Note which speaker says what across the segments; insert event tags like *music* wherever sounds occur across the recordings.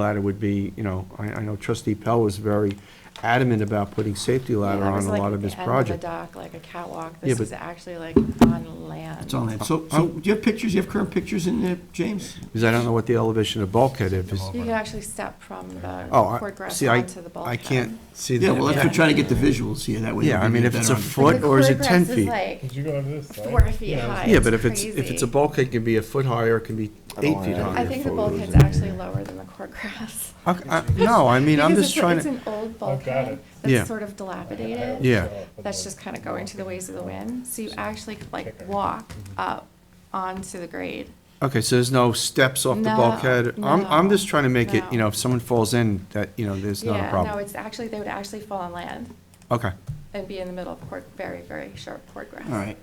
Speaker 1: ladder would be, you know, I, I know trustee Pell was very adamant about putting safety ladder
Speaker 2: Yeah, that
Speaker 1: on
Speaker 2: was
Speaker 1: a
Speaker 2: like
Speaker 1: lot
Speaker 2: at
Speaker 1: of
Speaker 2: the
Speaker 1: his
Speaker 2: end
Speaker 1: project.
Speaker 2: a dock, like a catwalk.
Speaker 1: Yeah,
Speaker 2: This
Speaker 1: but-
Speaker 2: is actually like on land.
Speaker 3: It's on that. So,
Speaker 1: Uh,
Speaker 3: so do you have pictures, you have current pictures in there, James?
Speaker 1: Because I don't know what the elevation of bulkhead is.
Speaker 2: You can actually step from the
Speaker 1: Oh, I-
Speaker 2: court grass
Speaker 1: see, I,
Speaker 2: onto the
Speaker 1: I
Speaker 2: bulkhead.
Speaker 1: can't see
Speaker 3: Yeah,
Speaker 1: that.
Speaker 3: well, that's, we're trying to get the visuals here, that way.
Speaker 1: Yeah,
Speaker 3: we
Speaker 1: I
Speaker 3: can
Speaker 1: mean,
Speaker 3: get
Speaker 1: if
Speaker 3: that
Speaker 1: it's a
Speaker 3: on-
Speaker 1: foot- What, or is it 10 feet?
Speaker 2: Like
Speaker 4: Did you go to this side?
Speaker 2: four feet
Speaker 4: Yeah,
Speaker 2: high.
Speaker 1: Yeah, but if it's, if it's a
Speaker 2: crazy.
Speaker 1: bulkhead, it can be a foot high or it can be eight feet
Speaker 2: I
Speaker 1: high.
Speaker 2: think the bulkhead's actually lower than the court grass.
Speaker 1: I- I- No, I mean, I'm
Speaker 2: Because
Speaker 1: just
Speaker 2: it's a-
Speaker 1: trying
Speaker 2: It's
Speaker 1: to,
Speaker 2: an old
Speaker 4: got
Speaker 2: bulkhead
Speaker 4: it.
Speaker 1: Yeah.
Speaker 2: that's sort of dilapidated.
Speaker 1: Yeah.
Speaker 4: Oh,
Speaker 2: That's just kind of going to the ways of the wind. So you actually could, like walk up onto the grade.
Speaker 1: okay, so there's no steps off the
Speaker 2: No,
Speaker 1: bulkhead? I'm, I'm
Speaker 2: no,
Speaker 1: just trying to make it, you
Speaker 2: no.
Speaker 1: know, if someone falls in, that, you know, there's not a
Speaker 2: Yeah, no,
Speaker 1: problem.
Speaker 2: it's actually, they would actually fall on land
Speaker 1: Okay,
Speaker 2: and be in the middle of court, very, very sharp court grass.
Speaker 3: All right.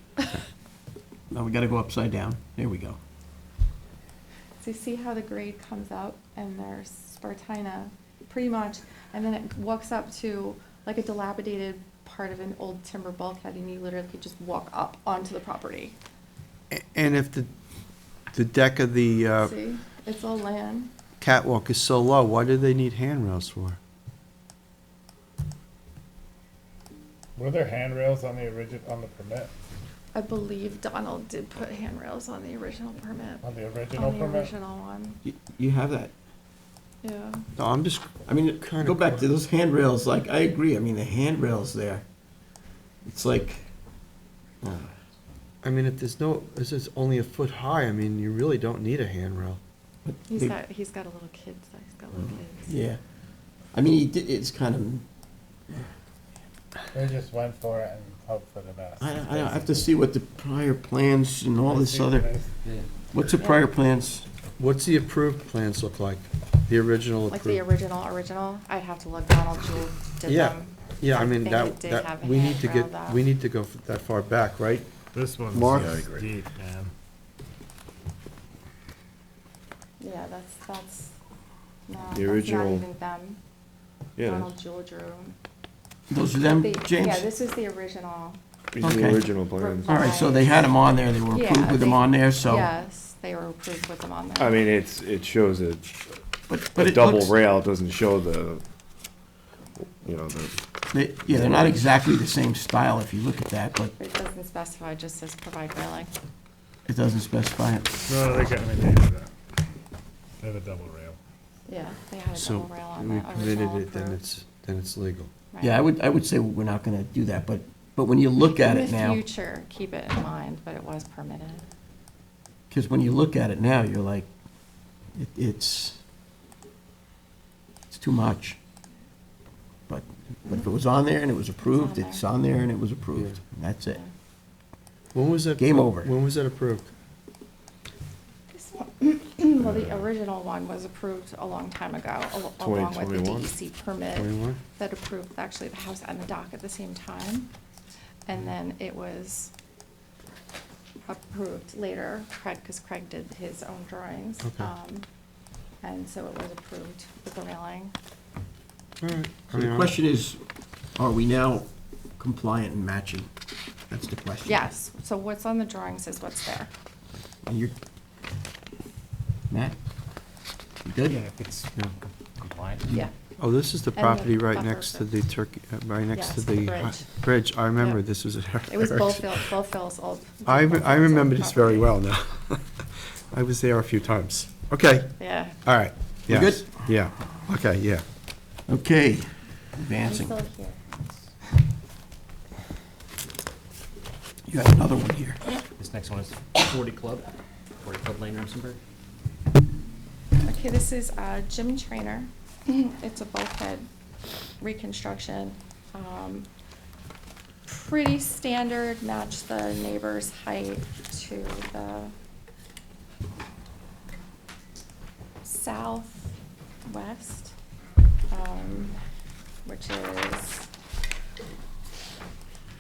Speaker 3: Now we gotta go upside down. There we go.
Speaker 2: So you see how the grade comes up and there's Spartina, pretty much, and then it walks up to like a dilapidated part of an old timber bulkhead and you literally could just walk up onto the property.
Speaker 1: A- and if the, the deck of the uh,
Speaker 2: See, it's all land.
Speaker 1: catwalk is so low, why do they need handrails for?
Speaker 4: Were there handrails on the origin, on the permit,
Speaker 2: I believe Donald did put handrails on the original permit,
Speaker 4: on the original
Speaker 2: on the
Speaker 4: permit?
Speaker 2: original one,
Speaker 3: You- You have that.
Speaker 2: yeah.
Speaker 1: No, I'm just,
Speaker 3: I mean, go back to those handrails, like, I agree, I mean, the handrails there, it's like, uh,
Speaker 1: I mean, if there's no, this is only a foot high, I mean, you really don't need a handrail.
Speaker 3: but
Speaker 2: He's
Speaker 3: they-
Speaker 2: got, he's got a little kid, so he's got little kids.
Speaker 3: Mm-hmm. yeah. I mean, he did, it's kind of,
Speaker 4: They just went for it and hoped for the best.
Speaker 3: I, I I have to see what the prior plans and all this other,
Speaker 4: Basically.
Speaker 3: what's the prior plans?
Speaker 1: What's the approved plans look like? The original
Speaker 2: Like the
Speaker 1: approved?
Speaker 2: original, original, I'd have to look, Donald Jewel did
Speaker 1: Yeah,
Speaker 2: them.
Speaker 1: Yeah, I mean,
Speaker 2: think
Speaker 1: that,
Speaker 2: it did have
Speaker 1: that,
Speaker 2: a
Speaker 1: we need to
Speaker 2: handrail,
Speaker 1: get,
Speaker 2: though.
Speaker 1: we need to go f- that far back, right?
Speaker 4: This one's
Speaker 1: Mark?
Speaker 4: deep, man.
Speaker 2: Yeah, that's, that's, no, that's
Speaker 5: The
Speaker 2: not
Speaker 5: original-
Speaker 2: even them.
Speaker 5: Yeah,
Speaker 2: Donald Jewel drew.
Speaker 3: Those are them,
Speaker 2: The- Yeah,
Speaker 3: James?
Speaker 2: this is the original.
Speaker 5: these are
Speaker 3: Okay.
Speaker 5: the original plans.
Speaker 3: All right, so they had them on there, they were approved
Speaker 2: Yeah,
Speaker 3: with them
Speaker 2: they-
Speaker 3: on there, so,
Speaker 2: Yes, they were approved with them on there.
Speaker 5: I mean, it's, it shows a,
Speaker 3: but, but
Speaker 5: a
Speaker 3: it
Speaker 5: double
Speaker 3: looks,
Speaker 5: rail, it doesn't show the, you know, the,
Speaker 3: they- yeah, they're not exactly the same style if you look at that, but
Speaker 2: It doesn't specify, it just says provide railing.
Speaker 3: it doesn't specify it.
Speaker 4: No, they got, I mean, they had a, they had a double rail.
Speaker 2: Yeah, they had a
Speaker 1: So
Speaker 2: double rail on
Speaker 1: we
Speaker 2: that
Speaker 1: permitted
Speaker 2: original
Speaker 1: it, then
Speaker 2: approved.
Speaker 1: it's, then it's legal.
Speaker 2: Right.
Speaker 3: Yeah, I would, I would say we're not gonna do that, but, but when you look at it now.
Speaker 2: In the future, keep it in mind, but it was permitted.
Speaker 3: Because when you look at it now, you're like, it, it's, it's too much. But, but if it was on there and it was approved, it's on there and it was approved, and that's it.
Speaker 2: Yeah.
Speaker 1: When was that?
Speaker 3: Game over.
Speaker 1: When was that approved?
Speaker 2: This one- Well, the original one was approved a long time ago, al- along with the
Speaker 5: 2021?
Speaker 2: DEC permit
Speaker 1: Twenty-one?
Speaker 2: that approved actually the house and the dock at the same time. And then it was approved later, Craig, because Craig did his own drawings.
Speaker 1: Okay.
Speaker 2: um, And so it was approved with the railing.
Speaker 1: All right. I
Speaker 3: So
Speaker 1: mean,
Speaker 3: the
Speaker 1: I'm-
Speaker 3: question is, are we now compliant and matching? That's the question.
Speaker 2: Yes, so what's on the drawings is what's there.
Speaker 3: And you're, Matt? You good?
Speaker 6: Yeah, if it's
Speaker 1: Yeah.
Speaker 6: compliant.
Speaker 2: Yeah.
Speaker 1: Oh, this is the
Speaker 2: the
Speaker 1: property right
Speaker 2: buffer
Speaker 1: next to
Speaker 2: zone.
Speaker 1: the turkey, uh, right next
Speaker 2: Yes,
Speaker 1: to the
Speaker 2: the
Speaker 1: hi-
Speaker 2: bridge.
Speaker 1: bridge. I remember
Speaker 2: Yep.
Speaker 1: this was at Eric's.
Speaker 2: It was Bullfield, Bullfield's old.
Speaker 1: I, re- I
Speaker 2: Bullfield's old
Speaker 1: remember this very
Speaker 2: property.
Speaker 1: well now. *laughs* I was there a few times. Okay,
Speaker 2: Yeah.
Speaker 1: all right.
Speaker 3: We're
Speaker 1: yes,
Speaker 3: good?
Speaker 1: Yeah, okay, yeah.
Speaker 3: Okay,
Speaker 2: I'm
Speaker 3: advancing.
Speaker 2: still here.
Speaker 3: You have another one here.
Speaker 6: This next one is 40 Club, 40 Club Lane, Remsenburg.
Speaker 2: Okay, this is uh, Jim Trainer. It's a bulkhead reconstruction. Um, Pretty standard, match the neighbor's height to the southwest, um, which is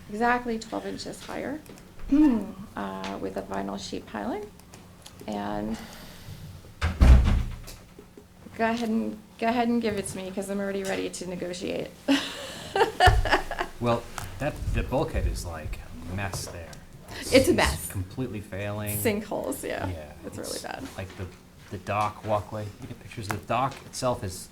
Speaker 2: exactly 12 inches higher uh, with a vinyl sheet piling. And Go ahead and, go ahead and give it to me, because I'm already ready to negotiate.
Speaker 6: Well, that, the bulkhead is like a mess there.
Speaker 2: It's a mess.
Speaker 6: Completely
Speaker 2: *laughs*
Speaker 6: failing.
Speaker 2: Sinkholes, yeah.
Speaker 6: Yeah.
Speaker 2: It's really bad.
Speaker 6: Like the the dock walkway. You get pictures. The dock itself is